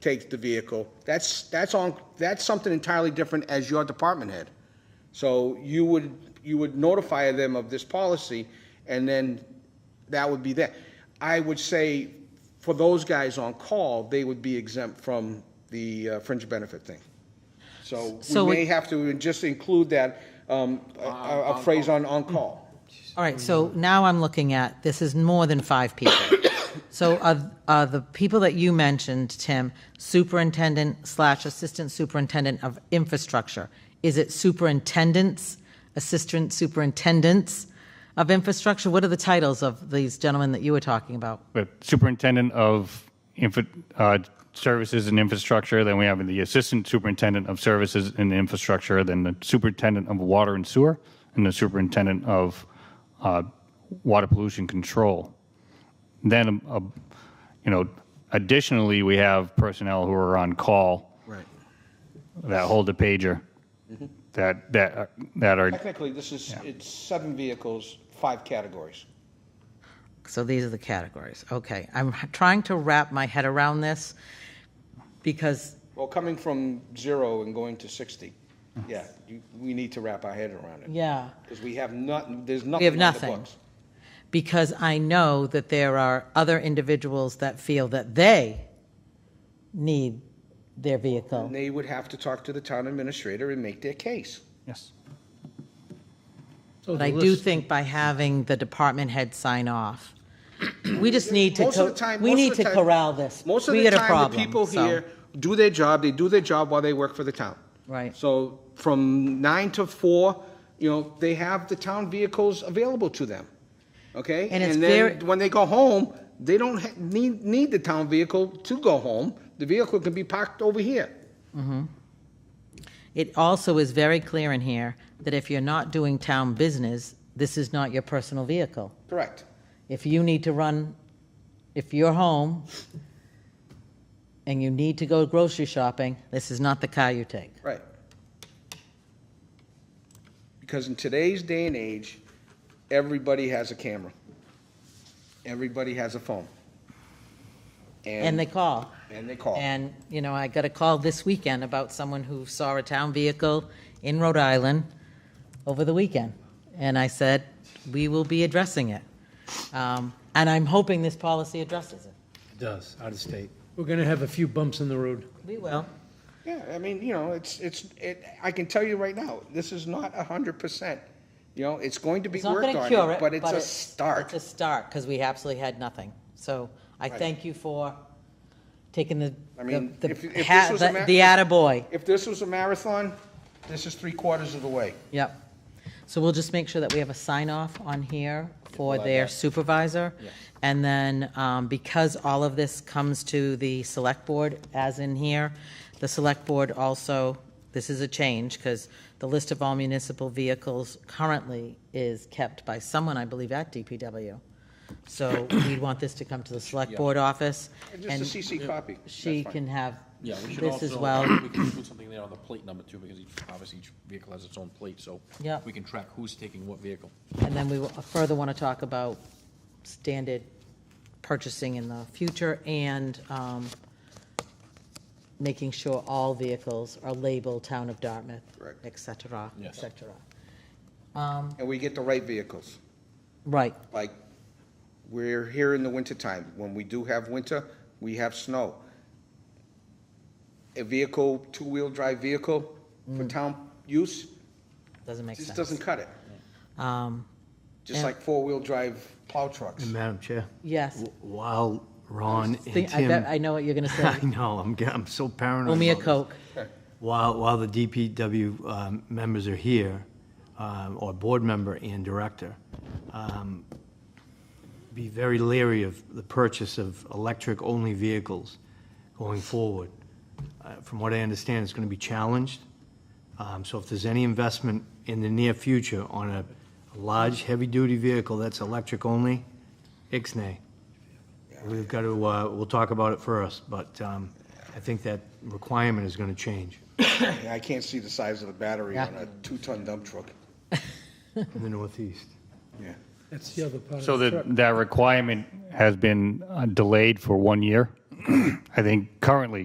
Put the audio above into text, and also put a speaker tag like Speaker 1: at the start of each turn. Speaker 1: takes the vehicle. That's, that's on, that's something entirely different as your department head. So you would, you would notify them of this policy, and then that would be that. I would say, for those guys on call, they would be exempt from the uh, fringe benefit thing. So
Speaker 2: So
Speaker 1: we
Speaker 2: we-
Speaker 1: may have to just include that, um, a- a a phrase on, on call.
Speaker 2: All right, so now I'm looking at, this is more than five people. So are, are the people that you mentioned, Tim, superintendent slash assistant superintendent of infrastructure? Is it superintendents, assistant superintendents of infrastructure? What are the titles of these gentlemen that you were talking about?
Speaker 3: the superintendent of infra, uh, services and infrastructure. Then we have the assistant superintendent of services and infrastructure. Then the superintendent of water and sewer, and the superintendent of uh, water pollution control. Then, uh, you know, additionally, we have personnel who are on call
Speaker 1: Right.
Speaker 3: that hold a pager. That that are- that are
Speaker 1: Technically, this is, it's seven vehicles, five categories.
Speaker 2: So these are the categories. Okay, I'm trying to wrap my head around this because
Speaker 1: Well, coming from zero and going to 60, yeah, you- we need to wrap our head around it.
Speaker 2: Yeah.
Speaker 1: Because we have not, there's nothing
Speaker 2: have
Speaker 1: on the
Speaker 2: nothing.
Speaker 1: books.
Speaker 2: because I know that there are other individuals that feel that they need their vehicle.
Speaker 1: They would have to talk to the town administrator and make their case.
Speaker 3: yes.
Speaker 2: But I do think by having the department head sign off, we just need to,
Speaker 1: Most of
Speaker 2: co-
Speaker 1: the time,
Speaker 2: we
Speaker 1: most
Speaker 2: need
Speaker 1: of the
Speaker 2: to
Speaker 1: time-
Speaker 2: corral this.
Speaker 1: Most of
Speaker 2: We
Speaker 1: the
Speaker 2: got a
Speaker 1: time, the
Speaker 2: problem,
Speaker 1: people
Speaker 2: so-
Speaker 1: here do their job, they do their job while they work for the town.
Speaker 2: Right.
Speaker 1: So from nine to four, you know, they have the town vehicles available to them, okay?
Speaker 2: And it's very-
Speaker 1: then when they go home, they don't ha- need, need the town vehicle to go home. The vehicle can be parked over here.
Speaker 2: It also is very clear in here that if you're not doing town business, this is not your personal vehicle.
Speaker 1: Correct.
Speaker 2: If you need to run, if you're home and you need to go grocery shopping, this is not the car you take.
Speaker 1: Right. Because in today's day and age, everybody has a camera. Everybody has a phone.
Speaker 2: And they call.
Speaker 1: And they call.
Speaker 2: And, you know, I got a call this weekend about someone who saw a town vehicle in Rhode Island over the weekend. And I said, we will be addressing it. Um, And I'm hoping this policy addresses it.
Speaker 4: Does, out of state. We're going to have a few bumps in the road.
Speaker 2: We will.
Speaker 1: Yeah, I mean, you know, it's, it's, it, I can tell you right now, this is not a hundred percent. You know, it's going to be
Speaker 2: It's not
Speaker 1: worked
Speaker 2: going to
Speaker 1: on,
Speaker 2: cure
Speaker 1: it,
Speaker 2: it.
Speaker 1: but it's a start.
Speaker 2: It's a start, because we absolutely had nothing. So I thank you for taking the,
Speaker 1: I
Speaker 2: the,
Speaker 1: mean,
Speaker 2: the
Speaker 1: if- if
Speaker 2: ha-
Speaker 1: this was a
Speaker 2: the
Speaker 1: ma-
Speaker 2: the attaboy.
Speaker 1: If this was a marathon, this is three quarters of the way.
Speaker 2: Yep. So we'll just make sure that we have a sign off on here for their supervisor. And then, um, because all of this comes to the select board, as in here, the select board also, this is a change, because the list of all municipal vehicles currently is kept by someone, I believe, at DPW. So we want this to come to the select board office. and
Speaker 1: Just a CC copy. That's
Speaker 2: She
Speaker 1: fine.
Speaker 2: can have
Speaker 5: Yeah, we should
Speaker 2: this
Speaker 5: also,
Speaker 2: as well.
Speaker 5: we can put something there on the plate number too, because each, obviously each vehicle has its own plate, so
Speaker 2: Yeah.
Speaker 5: we can track who's taking what vehicle.
Speaker 2: And then we will- further want to talk about standard purchasing in the future and um, making sure all vehicles are labeled Town of Dartmouth,
Speaker 1: Correct.
Speaker 2: et cetera, et
Speaker 5: Yes.
Speaker 2: cetera.
Speaker 1: And we get the right vehicles.
Speaker 2: Right,
Speaker 1: like, we're here in the wintertime. When we do have winter, we have snow. A vehicle, two-wheel drive vehicle for town use,
Speaker 2: doesn't make
Speaker 1: just
Speaker 2: sense. Um,
Speaker 1: doesn't cut it. Just like four-wheel drive plow trucks.
Speaker 6: Madam Chair,
Speaker 2: Yes.
Speaker 6: w- while Ron and
Speaker 2: Think- I bet- I
Speaker 6: Tim,
Speaker 2: know what you're going to
Speaker 6: I
Speaker 2: say.
Speaker 6: know, I'm, get- I'm so paranoid.
Speaker 2: Owe me a
Speaker 6: about this.
Speaker 2: Coke.
Speaker 6: While, while the DPW um, members are here, um, or board member and director, um, be very leery of the purchase of electric-only vehicles going forward. Uh, From what I understand, it's going to be challenged. Um, So if there's any investment in the near future on a large, heavy-duty vehicle that's electric-only, ixnay. We've got to, uh, we'll talk about it first, but um, I think that requirement is going to change
Speaker 1: And I can't see the size of the battery on a two-ton dump truck.
Speaker 6: in the Northeast.
Speaker 1: Yeah.
Speaker 4: That's the other part
Speaker 3: So
Speaker 4: of the truck.
Speaker 3: that, that requirement has been uh, delayed for one year. I think currently,